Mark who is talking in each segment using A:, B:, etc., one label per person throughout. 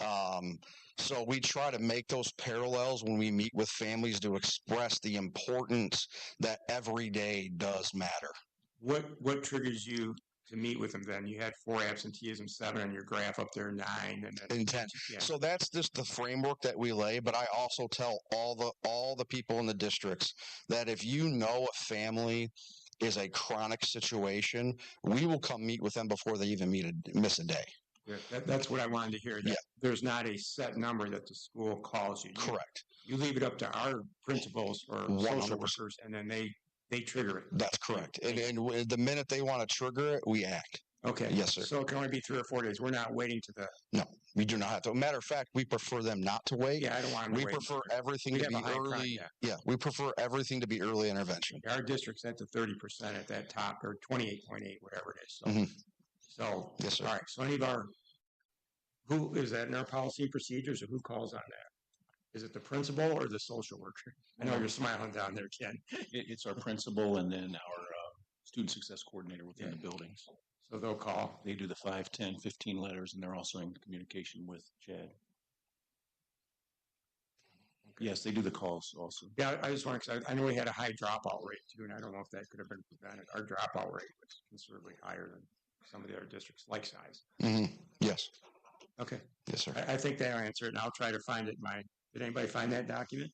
A: Um, so we try to make those parallels when we meet with families to express the importance that every day does matter.
B: What, what triggers you to meet with them then? You had four absenteeism, seven on your graph up there, nine, and then.
A: Intent.
B: Yeah.
A: So that's just the framework that we lay, but I also tell all the all the people in the districts that if you know a family is a chronic situation, we will come meet with them before they even meet a, miss a day.
B: Yeah, that, that's what I wanted to hear. that
A: Yeah.
B: There's not a set number that the school calls you. You-
A: Correct.
B: You leave it up to our principals or social
A: 100%.
B: workers and then they, they trigger it.
A: That's correct. And, and w- the minute they want to trigger it, we act.
B: Okay.
A: Yes, sir.
B: So it can only be three or four days. We're not waiting to the,
A: We do not have to. Matter of fact, we prefer them not to wait.
B: yeah, I don't want to
A: we
B: wait.
A: prefer everything
B: We
A: to
B: have
A: be
B: a high crime,
A: early.
B: yeah.
A: yeah, we prefer everything to be early intervention.
B: Our district's at the thirty percent at that top or twenty-eight point eight, whatever it is. So,
A: Mhm.
B: so
A: Yes, sir.
B: All right, so any of our, who is that in our policy and procedures or who calls on that? Is it the principal or the social worker? I know you're smiling down there, Ken.
C: It, it's our principal and then our uh, student success coordinator within the buildings.
B: So they'll call.
C: They do the five, ten, fifteen letters, and they're also in communication with Chad. Yes, they do the calls also.
B: Yeah, I I just want, to I know we had a high dropout rate too, and I don't know if that could have been prevented. Our dropout rate was considerably higher than some of the other districts, like size.
A: hmm Yes.
B: Okay,
A: Yes, sir.
B: I, I think that answered, and I'll try to find it in my, did anybody find that document?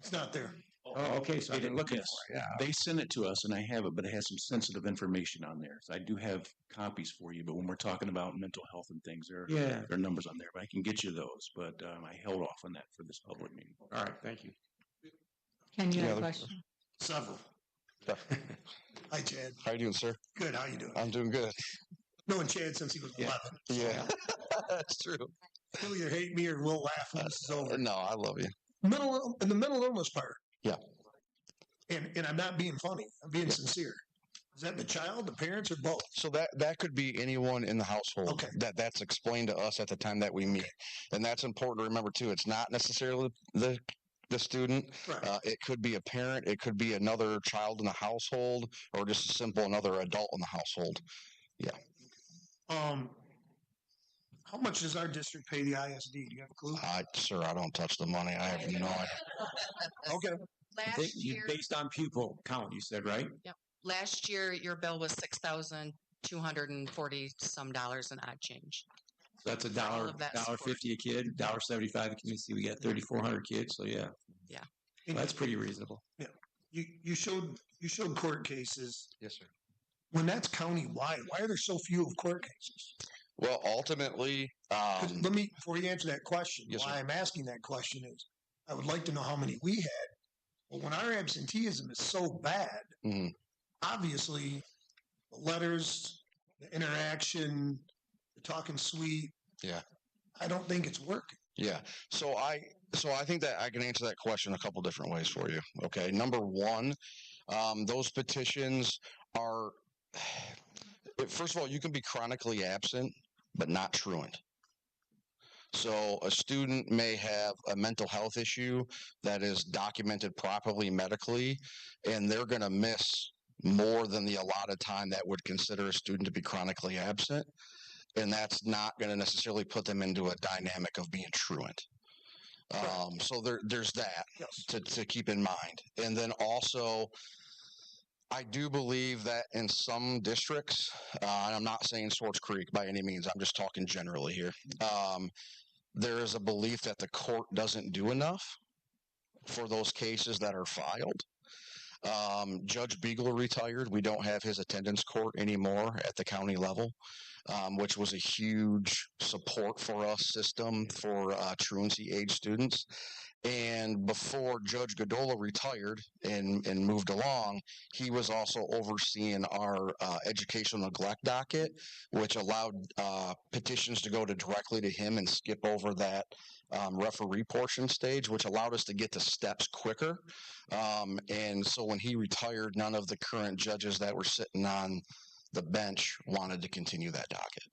C: It's not there.
B: Oh, okay, so I didn't look at it.
C: Yes.
B: Yeah,
C: They sent it to us, and I have it, but it has some sensitive information on there. So I do have copies for you, but when we're talking about mental health and things, there,
B: yeah.
C: there are numbers on there, but I can get you those. But um, I held off on that for this public meeting.
B: All right, thank you.
D: Ken, you have
A: Any
D: a
A: other-
D: question?
E: Several.
A: Yeah.
E: Hi, Chad.
A: How you doing, sir?
E: Good. How you doing?
A: I'm doing good.
E: Known Chad since he was
B: Yeah.
E: 11.
A: Yeah, that's true.
E: He'll either hate me or we'll laugh when this is over.
A: No, I love you.
E: Mental ill- and the mental illness part.
A: Yeah.
E: And and I'm not being funny. I'm being sincere. Is that the child, the parents, or both?
A: So that that could be anyone in the household
E: Okay.
A: that that's explained to us at the time that we meet, and that's important to remember too. It's not necessarily the the student.
E: Right.
A: Uh, it could be a parent. It could be another child in the household, or just a simple another adult in the household.
E: um. How much does our district pay the ISD? Do you have a clue?
B: Uh,
A: I, sir, I don't touch the money. I have no idea.
E: Okay.
B: They-
F: Uh, Last
B: you-
F: year,
B: Based on pupil count, you said, right?
F: last year, your bill was six thousand two hundred and forty some dollars and odd change.
B: So that's a dollar,
F: of that
B: dollar
F: support.
B: fifty a kid, dollar seventy-five a kid. You see, we got thirty-four hundred kids, so yeah.
F: Yeah.
B: Well, That's pretty reasonable.
E: You you showed you showed court cases.
A: Yes, sir.
E: When that's county wide, why are there so few of court cases?
A: Well, ultimately,
E: 'Cause
A: um,
E: let me before you answer that question.
A: Yes, sir.
E: why I'm asking that question is, I would like to know how many we had. But when our absenteeism is so bad,
A: mhm,
E: obviously, the letters, the interaction, the talking sweet.
A: Yeah.
E: I don't think it's working.
A: yeah. So I so I think that I can answer that question a couple different ways for you. Okay. Number one, um, those petitions are. First of all, you can be chronically absent, but not truant. So a student may have a mental health issue that is documented properly medically, and they're going to miss more than the allotted time that would consider a student to be chronically absent. And that's not going to necessarily put them into a dynamic of being truant. Um, so there, there's that
E: Yes.
A: to, to keep in mind. And then also, I do believe that in some districts, uh, and I'm not saying Swartz Creek by any means, I'm just talking generally here. Um, there is a belief that the court doesn't do enough for those cases that are filed. Um, Judge Beagle retired. We don't have his attendance court anymore at the county level, um, which was a huge support for us system for uh, truancy age students. And before Judge Godola retired and, and moved along, he was also overseeing our uh, educational neglect docket, which allowed uh, petitions to go to directly to him and skip over that um, referee portion stage, which allowed us to get to steps quicker. Um, and so when he retired, none of the current judges that were sitting on the bench wanted to continue that docket.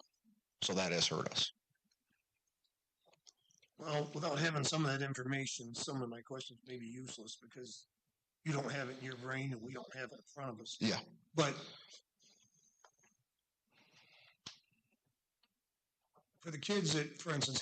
A: So that has hurt us.
E: Well, without having some of that information, some of my questions may be useless because you don't have it in your brain and we don't have it in front of us.
A: Yeah.
E: But for the kids that, for instance,